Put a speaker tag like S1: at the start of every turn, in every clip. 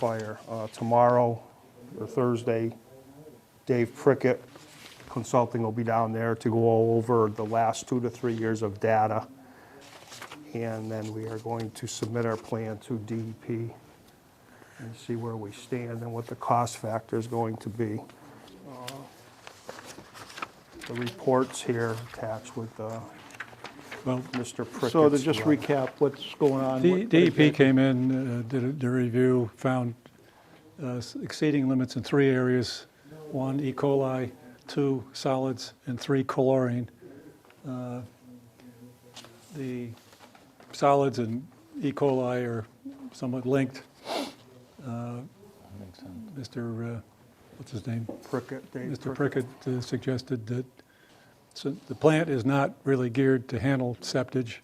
S1: fire. Uh, Tomorrow or Thursday, Dave Prickett Consulting will be down there to go over the last two to three years of data. And then we are going to submit our plan to DEP and see where we stand and what the cost factor is going to be. Uh, The reports here attached with uh,
S2: Well,
S1: Mr. Prickett's.
S3: So to just
S1: letter.
S3: recap what's going on.
S2: D-
S3: what-
S2: DEP E came in, uh, did a- did a review, found uh, s- exceeding limits in three areas. One, E. coli, two, solids, and three, chlorine. Uh, The solids and E. coli are somewhat linked. Uh, Mr., uh, what's his name?
S1: Prickett, Dave
S2: Mr.
S1: Prickett.
S2: Prickett uh, suggested that, so the plant is not really geared to handle septage,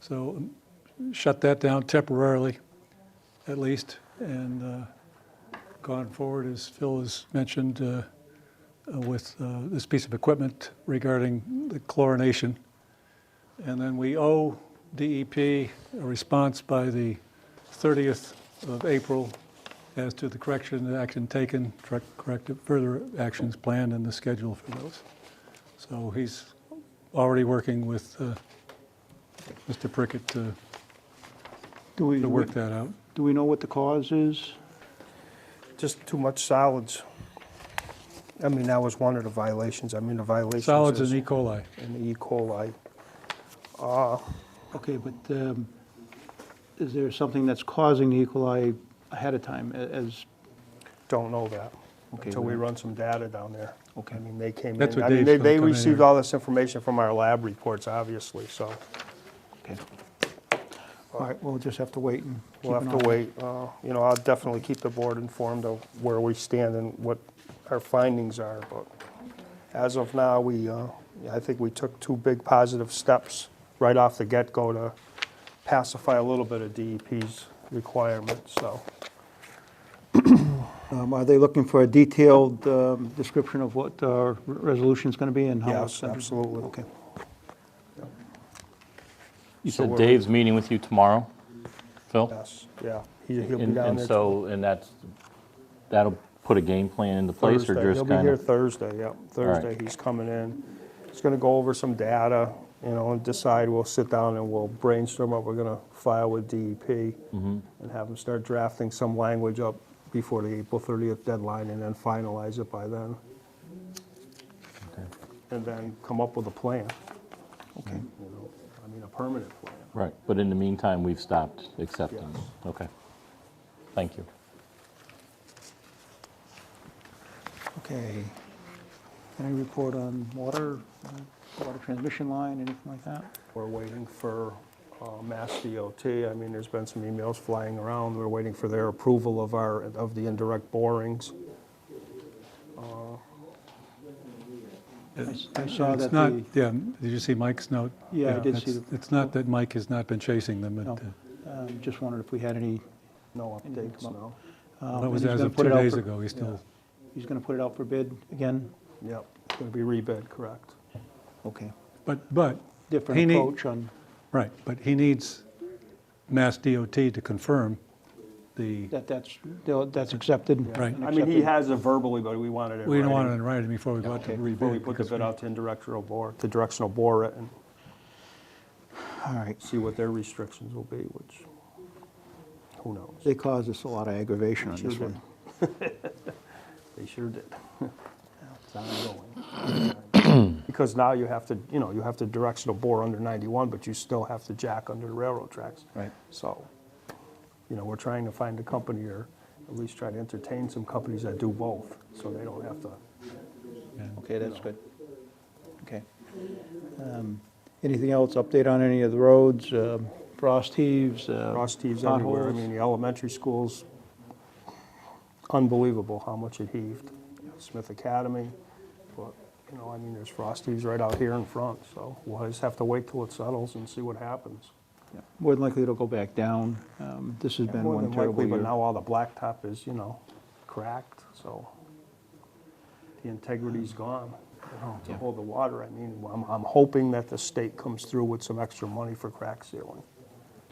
S2: so um, shut that down temporarily, at least, and uh, gone forward, as Phil has mentioned, uh, uh, with uh, this piece of equipment regarding the chlorination. And then we owe DEP a response by the 30th of April as to the correction, the action taken, correct- corrective, further actions planned and the schedule for those. So he's already working with uh, Mr. Prickett to
S3: Do we,
S2: to work that out.
S3: do we know what the cause is?
S1: Just too much solids. I mean, that was one of the violations. I mean, the violations
S2: Solids
S1: is
S2: and E. coli.
S1: in the E. coli. Ah,
S3: Okay, but um, is there something that's causing the E. coli ahead of time a- as,
S1: Don't know that
S3: Okay,
S1: until we
S3: well-
S1: run some data down there.
S3: Okay.
S1: I mean, they came in.
S2: That's what
S1: I mean,
S2: Dave's
S1: they-
S2: gonna
S1: They
S2: come in
S1: received
S2: here.
S1: all this information from our lab reports, obviously, so
S3: okay. All right, we'll just have to wait and keep
S1: we'll
S3: an
S1: have
S3: eye
S1: to
S3: on it.
S1: wait. Uh, You know, I'll definitely keep the board informed of where we stand and what our findings are, but as of now, we, uh, I think we took two big positive steps right off the get-go to pacify a little bit of DEP's requirements, so.
S3: Um, Are they looking for a detailed um, description of what our resolution's going to be and how it's
S1: Yes,
S3: going to
S1: absolutely.
S3: Okay.
S4: You
S1: So
S4: said
S1: we're-
S4: Dave's meeting with you tomorrow, Phil?
S1: Yes, yeah. He- He'll be
S4: And-
S1: down
S4: And
S1: there
S4: so, and that's, that'll put a game plan into place or
S1: Thursday.
S4: just
S1: He'll be
S4: kind
S1: here
S4: of?
S1: Thursday, yep. Thursday, he's coming in. He's gonna go over some data, you know, and decide, we'll sit down and we'll brainstorm what we're gonna file with DEP
S4: Mm-hmm.
S1: and have them start drafting some language up before the April 30th deadline and then finalize it by then. And then come up with a plan. Okay. I mean, a permanent plan.
S4: Right, but in the meantime, we've stopped accepting.
S1: Yes.
S4: Okay. Thank you.
S3: Okay. Any report on water, uh, water transmission line, anything like that?
S1: We're waiting for uh, Mass DOT. I mean, there's been some emails flying around. We're waiting for their approval of our, of the indirect borings.
S3: I- I saw
S2: It's
S3: that
S2: not,
S3: the,
S2: yeah, did you see Mike's note?
S3: Yeah, I did see
S2: that's-
S3: the-
S2: It's not that Mike has not been chasing them.
S3: no,
S2: but, uh,
S3: um, just wondered if we had any.
S1: No
S3: Anything
S1: updates,
S3: come
S1: no.
S3: um,
S2: That
S3: and
S2: was
S3: he's
S2: as
S3: gonna
S2: of
S3: put
S2: two
S3: it out
S2: days
S3: for-
S2: ago, he's still,
S3: He's going to put it out for bid again?
S1: Yep, it's going to be rebid, correct.
S3: Okay.
S2: but, but, He
S3: Different
S2: need-
S3: approach on,
S2: right, but he needs Mass DOT to confirm the,
S3: that that's, they'll- that's accepted?
S2: Right.
S3: and
S1: I mean, he
S3: accepted.
S1: has it verbally, but we wanted it
S2: we don't want it
S1: writing
S2: in writing before we go out to
S3: Okay.
S2: rebid.
S1: Before we put the
S2: because
S1: bid out to indirectional bore, to directional bore it and
S3: All right.
S1: see what their restrictions will be, which, who knows?
S3: They caused us a lot of aggravation on this
S1: Sure
S3: one.
S1: They sure did. It's ongoing. Because now you have to, you know, you have to directional bore under 91, but you still have to jack under the railroad tracks.
S3: Right.
S1: So, you know, we're trying to find a company or at least try to entertain some companies that do both, so they don't have to.
S3: Okay, that's good. Okay. Um, Anything else, update on any of the roads, um, frost heaves? uh,
S1: Frost heaves everywhere. I
S3: potholes?
S1: mean, the elementary schools, unbelievable how much it heaved. Smith Academy, but, you know, I mean, there's frost heaves right out here in front, so we'll just have to wait till it settles and see what happens.
S3: Yeah, More than likely, it'll go back down. Um, This has been
S1: More
S3: one
S1: than
S3: terrible
S1: likely, but
S3: year.
S1: now all the blacktop is, you know, cracked, so the integrity's gone, you know, to
S3: Oh, Yeah.
S1: hold the water. I mean, I'm, I'm hoping that the state comes through with some extra money for crack sealing.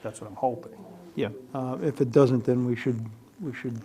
S1: That's what I'm hoping.
S3: Yeah, uh, if it doesn't, then we should we should